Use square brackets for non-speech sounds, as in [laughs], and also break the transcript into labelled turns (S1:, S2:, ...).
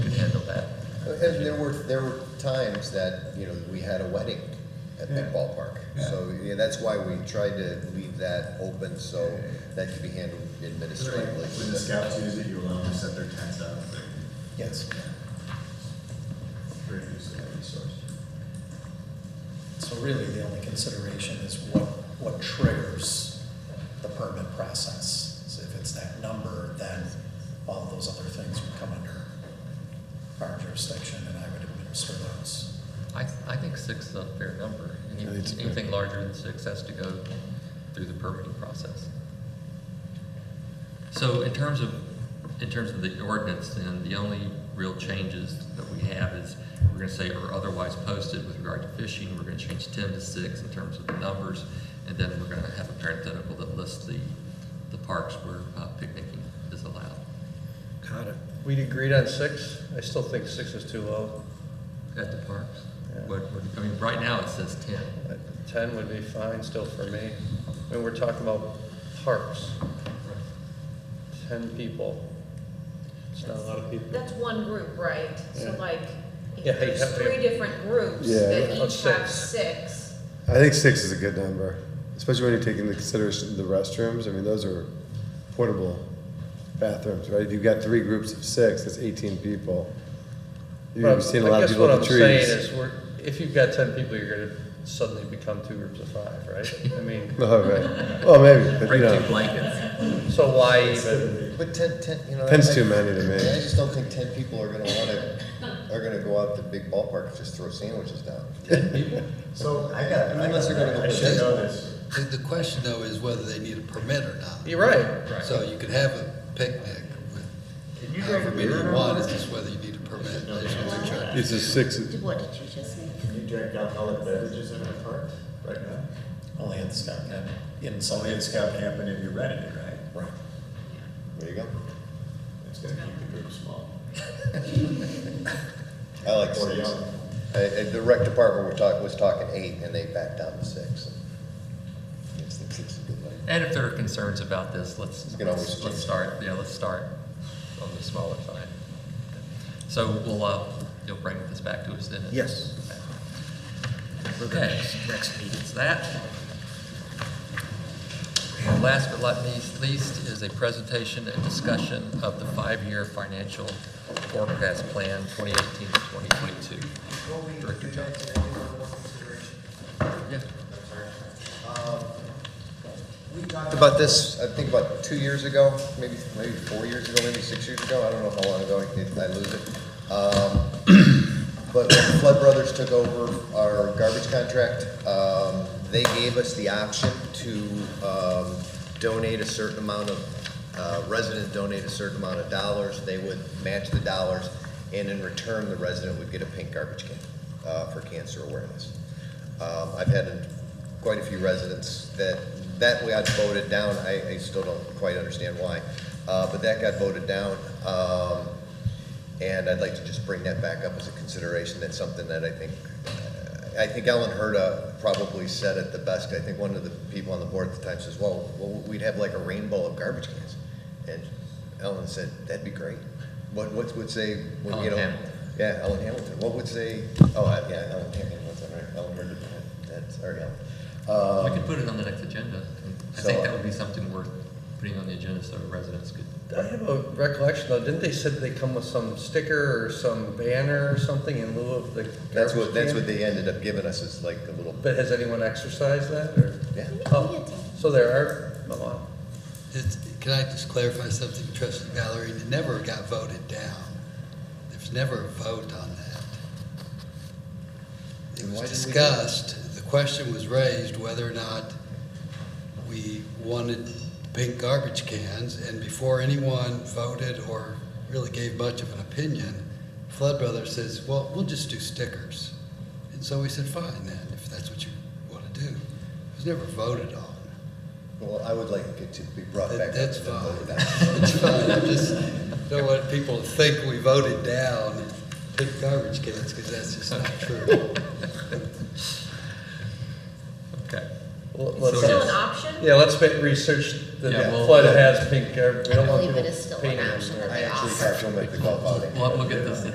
S1: And there were, there were times that, you know, we had a wedding at that
S2: Yeah.
S1: ballpark. So, yeah, that's why we tried to leave that open so that could be handled administratively.
S3: When the scouts use it, you allow them to set their tents out there.
S1: Yes.
S3: Great use of that resource.
S4: So really, the only consideration is what, what triggers the permit process. So if it's that number, then all those other things would come under our jurisdiction, and I would administer those.
S5: I, I think six is a fair number. Any-
S6: I think it's fair.
S5: Anything larger than six has to go through the permitting process. So in terms of, in terms of the ordinance, then the only real changes that we have is we're gonna say are otherwise posted with regard to fishing. We're gonna change ten to six in terms of the numbers. And then we're gonna have a parenthetical that lists the, the parks where uh, picnicking is allowed.
S6: Got it.
S7: We'd agreed on six. I still think six is too low.
S5: At the parks?
S7: Yeah.
S5: What, what- I mean, right now it says ten.
S7: Uh, Ten would be fine still for me. I mean, we're talking about parks, ten people. It's not a lot of people.
S8: That's one group, right? So
S7: Yeah.
S8: like, if
S7: Yeah, you
S8: there's
S7: have to-
S8: three different groups
S6: Yeah.
S8: that
S7: Of
S8: each have
S7: six.
S8: six.
S6: I think six is a good number, especially when you take into consideration the restrooms. I mean, those are portable bathrooms, right? If you've got three groups of six, that's 18 people. You've seen a
S7: But I
S6: lot
S7: guess
S6: of people
S7: what
S6: at
S7: I'm
S6: the
S7: saying
S6: trees.
S7: is, we're, if you've got ten people, you're gonna suddenly become two groups of five, right? I mean,
S6: [laughs] Oh, right. Well, maybe, but
S5: Bring
S6: you
S5: two
S6: know,
S5: blankets.
S7: so why even?
S1: But ten, ten, you know.
S6: Ten's
S1: I-
S6: too many to me.
S1: I just don't think ten people are gonna wanna, are gonna go out to big ballpark and just throw sandwiches down.
S3: So I got, I
S1: Unless they're gonna go
S3: got, I should
S1: play
S3: know this.
S9: The, the question though is whether they need a permit or not.
S7: You're right.
S9: So you could have a picnic with
S3: Can you drink
S9: however many
S3: beer
S9: you
S3: on
S9: want,
S3: this?
S9: it's just whether you need a permit. I just wanna check.
S6: it's a six.
S10: What did you just say?
S3: Can you drink alcoholic beverages in a park right now?
S4: Only at the scout camp, inside.
S3: Only at scout camp and if you're renting it, right?
S4: Right.
S1: There you go.
S3: It's gonna keep the group small.
S1: I like
S3: Or
S1: six.
S3: young.
S1: I- I- The rec department were talk, was talking eight and they backed down to six. I just think six is a good number.
S5: And if there are concerns about this, let's,
S1: You can always
S5: let's
S1: change.
S5: let's start, yeah, let's start on the smaller side. So we'll, uh, you'll bring this back to us then?
S4: Yes.
S5: Okay, next meeting's that. And last but not least- least is a presentation and discussion of the five-year financial forecast plan 2018 to 2022.
S11: Before we do
S5: Director
S11: that, can I do one more consideration? Um,
S5: Yeah.
S11: We talked
S1: About this, I think about two years ago, maybe, maybe four years ago, maybe six years ago, I don't know how long ago, I did- I lose it. Um, But when Flood Brothers took over our garbage contract, um, they gave us the option to um, donate a certain amount of, uh, residents donate a certain amount of dollars, they would match the dollars, and in return, the resident would get a pink garbage can uh, for cancer awareness. Um, I've had quite a few residents that, that way I voted down, I, I still don't quite understand why, uh, but that got voted down. Um, and I'd like to just bring that back up as a consideration. That's something that I think, I think Ellen Herta probably said it the best. I think one of the people on the board at the time says, well, well, we'd have like a rainbow of garbage cans. And Ellen said, that'd be great. What, what would say, well,
S5: Ellen
S1: you know?
S5: Hamilton.
S1: Yeah, Ellen Hamilton. What would say, oh, uh, yeah, Ellen Hamilton, what's that, right? Ellen Herta, that's, or Ellen.
S5: We
S1: Uh,
S5: could put it on the next agenda. Um, I
S1: So,
S5: think that
S1: uh,
S5: would be something worth putting on the agenda so residents could
S7: I have a recollection though, didn't they said they come with some sticker or some banner or something in lieu of the
S1: That's what,
S7: garbage
S1: that's
S7: can?
S1: what they ended up giving us is like a little,
S7: But has anyone exercised that, or?
S1: yeah.
S7: Oh, so there are, oh, wow.
S9: It's, can I just clarify something, trustee Valerie? It never got voted down. There's never a vote on that. It
S1: Then why didn't
S9: was
S1: we do it?
S9: discussed, the question was raised whether or not we wanted pink garbage cans, and before anyone voted or really gave much of an opinion, Flood Brothers says, well, we'll just do stickers. And so we said, fine then, if that's what you want to do. It was never voted on.
S1: Well, I would like it to be brought back up.
S9: That- That's
S1: and
S9: fine.
S1: voted on.
S9: [laughs] That's fine. I just don't want people to think we voted down big garbage cans, because that's
S1: [laughs]
S9: just not true.
S5: Okay.
S7: Well,
S8: It's
S7: let's-
S8: still
S5: yes.
S8: an option?
S7: Yeah, let's make research the
S5: Yeah, well-
S7: flood has pink, gar- we don't want
S10: believe it
S7: people
S10: is still an
S7: painting them
S10: option
S7: there.
S10: that
S1: I
S10: they
S1: actually
S10: offer.
S1: have to make the call out.
S5: We'll have to look at this